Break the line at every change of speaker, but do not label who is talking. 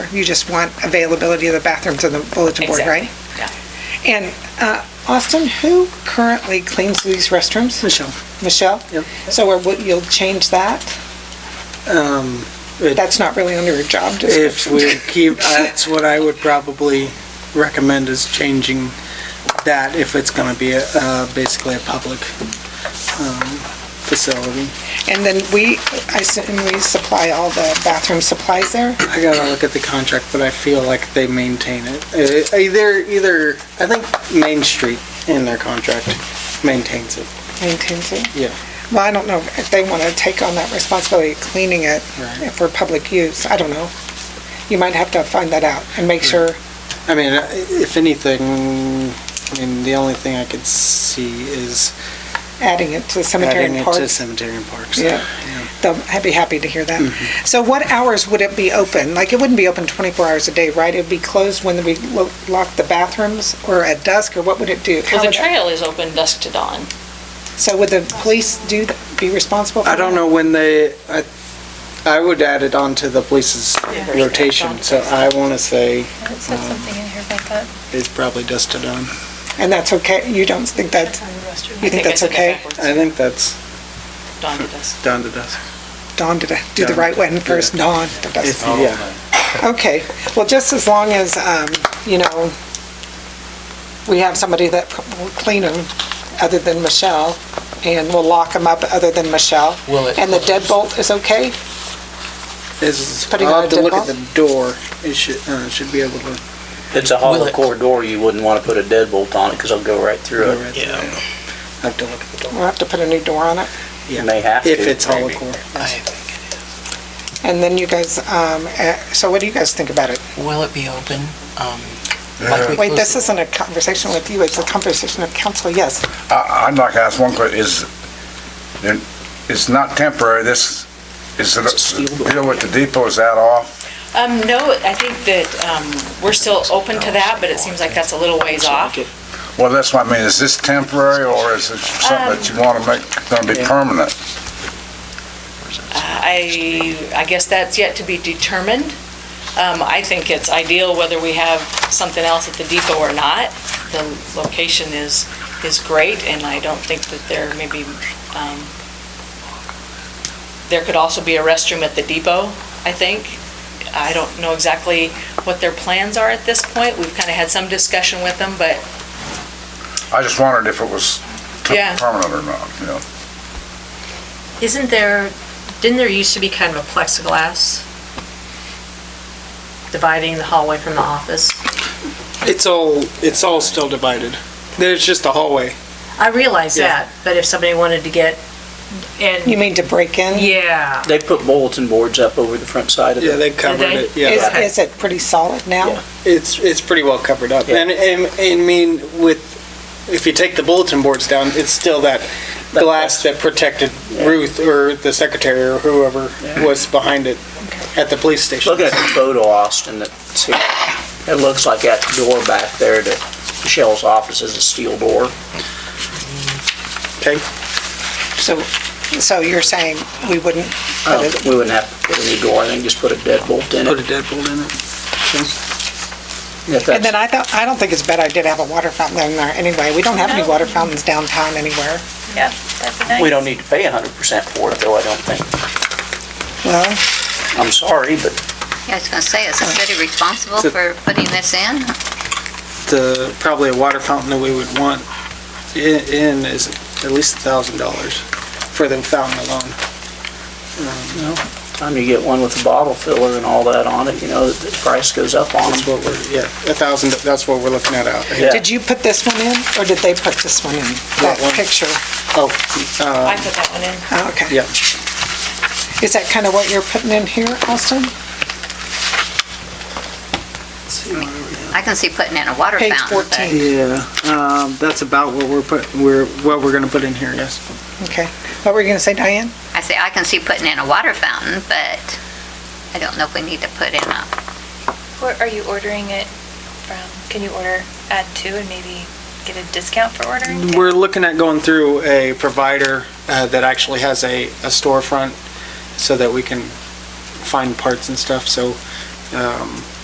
You just want availability of the bathrooms on the bulletin board, right? And uh, Austin, who currently cleans these restrooms?
Michelle,
Michelle?
Yep.
So are we- you'll change that?
um, it-
That's not really under your job
if
description.
we keep, that's what I would probably recommend is changing that if it's going to be a- uh, basically a public um, facility.
And then we, I assume we supply all the bathroom supplies there?
I gotta look at the contract, but I feel like they maintain it. Uh, Either, either, I think Main Street in their contract maintains it.
Maintains it?
Yeah.
Well, I don't know if they want to take on that responsibility of cleaning it
Right.
for public use. I don't know. You might have to find that out and make sure.
I mean, uh, if anything, I mean, the only thing I could see is
adding it to cemetery
adding
and
it to
parks.
cemetery and parks.
Yeah. They'll, I'd be happy to hear that. So what hours would it be open? Like, it wouldn't be open 24 hours a day, right? It'd be closed when we lo- lock the bathrooms or at dusk, or what would it do?
Well,
How
the
would-
trail is open dusk to dawn.
So would the police do, th- be responsible for
I don't
that?
know when they, I, I would add it onto the police's
Yeah.
rotation, so I wanna say
It said something in here about that.
it's probably dusted on.
And that's okay? You don't think that, you think
I
that's
said that
okay?
backwards.
I think that's
Dawn to dusk.
down to dusk.
Dawn did, I- do the right one first, dawn. the dusk.
It's- Yeah.
Okay, well, just as long as, um, you know, we have somebody that will clean them other than Michelle, and we'll lock them up other than Michelle.
Will it-
And the deadbolt is okay?
Is,
Putting
I'll
on
have
a
to look
dip
at the door. It should, uh, should be able to
It's a hollow
Will it-
core door, you wouldn't want to put a deadbolt on it because it'll go right through
go
it.
right through. I have to look at the door.
We'll have to put a new door on it.
You may have to.
If it's
maybe.
holocore.
And then you guys, um, eh, so what do you guys think about it?
Will it be open? um, like we
Wait,
closed
this
the-
isn't a conversation with you, it's a conversation of council, yes.
I- I'd like to ask one question, is, then, it's not temporary, this, is it, deal with the depot, is that off?
Um, no, I think that, um, we're still open to that, but it seems like that's a little ways off.
Well, that's what I mean, is this temporary, or is it something that you want to make, gonna be permanent?
I, I guess that's yet to be determined. Um, I think it's ideal whether we have something else at the depot or not. The location is, is great, and I don't think that there may be, um, there could also be a restroom at the depot, I think. I don't know exactly what their plans are at this point. We've kind of had some discussion with them, but
I just wondered if it was t-
Yeah.
permanent or not, you know?
Isn't there, didn't there used to be kind of a plexiglass dividing the hallway from the office?
It's all, it's all still divided. There's just a hallway.
I realize
Yeah.
that, but if somebody wanted to get,
You
and,
mean to break in?
yeah,
They put bulletin boards up over the front side of
Yeah,
it.
they covered it, yeah.
Is, is it pretty solid now?
Yeah.
It's, it's pretty well covered up.
Yeah.
And, and, and I mean, with, if you take the bulletin boards down, it's still that
That
glass that protected Ruth or the secretary or whoever was behind it at the police station.
Look at the photo, Austin, that's here. It looks like that door back there to Michelle's office is a steel door.
Okay,
So, so you're saying we wouldn't,
I don't think- Um, We wouldn't have to put a new door, I think just put a deadbolt in
Oh, put a
it.
deadbolt in it.
If
and then I
that's-
thought, I don't think it's a bad idea to have a water fountain in there anyway. We don't have any
No.
water fountains downtown anywhere.
yeah, that'd be nice.
We don't need to pay hundred percent for it though, I don't think.
Well,
I'm sorry, but
Yeah, I was going to say, is the city responsible
So-
for putting this in?
The, uh, probably a water fountain that we would want i- in is at least a thousand dollars for the fountain alone. Um,
time you get one with a bottle filler and all that on it, you know, the price goes up on
That's
them.
what we're, yeah, a thousand, that's what we're looking at out.
Yeah.
did you put this one in, or did they put this one in? That
one.
picture?
Oh,
I
uh,
put that one in.
Oh, okay.
yeah.
Is that kind of what you're putting in here, Austin?
I can see putting in a water
Page
fountain, but
14,
Yeah, um, that's about what we're put, we're, what we're gonna put in here, yes.
okay. What were you going to say, Diane?
I say, I can see putting in a water fountain, but I don't know if we need to put in a,
Where are you ordering it from? Can you order at two and maybe get a discount for ordering? two?
We're looking at going through a provider, uh, that actually has a, a storefront so that we can find parts and stuff, so, um,